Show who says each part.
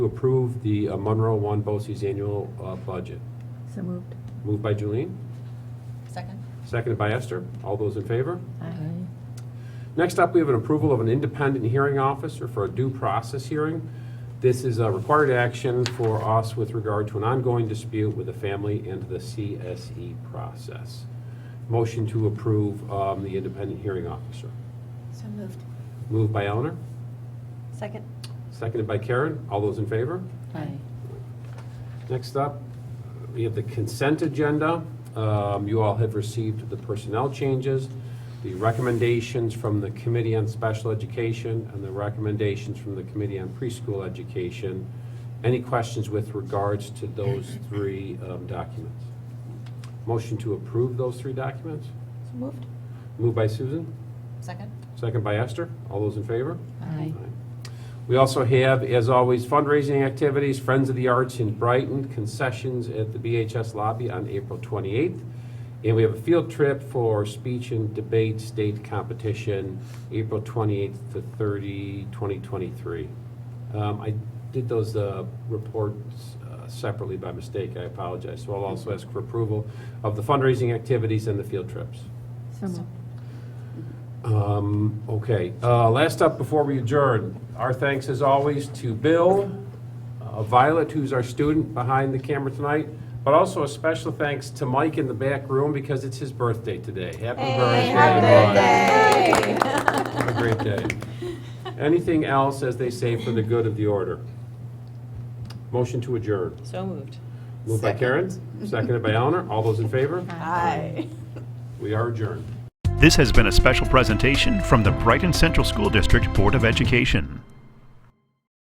Speaker 1: to approve the uh, Monroe One Bose's annual uh, budget.
Speaker 2: So moved.
Speaker 1: Moved by Julian,
Speaker 3: Second?
Speaker 1: seconded by Esther. All those in favor?
Speaker 2: Aye.
Speaker 1: Next up, we have an approval of an independent hearing officer for a due process hearing. This is a required action for us with regard to an ongoing dispute with a family and the CSE process. Motion to approve um, the independent hearing officer.
Speaker 3: So moved.
Speaker 1: Moved by Eleanor,
Speaker 3: Second?
Speaker 1: seconded by Karen. All those in favor?
Speaker 2: Aye.
Speaker 1: Next up, we have the consent agenda. Um, You all have received the personnel changes, the recommendations from the Committee on Special Education, and the recommendations from the Committee on Preschool Education. Any questions with regards to those three um, documents? Motion to approve those three documents?
Speaker 3: So moved.
Speaker 1: Moved by Susan,
Speaker 3: Second?
Speaker 1: second by Esther. All those in favor?
Speaker 2: Aye.
Speaker 1: We also have, as always, fundraising activities, Friends of the Arts in Brighton, concessions at the BHS lobby on April 28th. And we have a field trip for speech and debate state competition, April 28th to 30, 2023. Um, I did those uh, reports uh, separately by mistake, I apologize. So I'll also ask for approval of the fundraising activities and the field trips.
Speaker 2: So moved.
Speaker 1: Um, okay, uh, last up before we adjourn, our thanks as always to Bill, uh, Violet, who's our student behind the camera tonight, but also a special thanks to Mike in the back room because it's his birthday today. Happy birthday. Mike. Have a great day. Anything else, as they say, for the good of the order? Motion to adjourn.
Speaker 3: So moved.
Speaker 1: Moved by Karen, seconded by Eleanor. All those in favor?
Speaker 3: Aye.
Speaker 1: We are adjourned.
Speaker 4: This has been a special presentation from the Brighton Central School District Board of Education.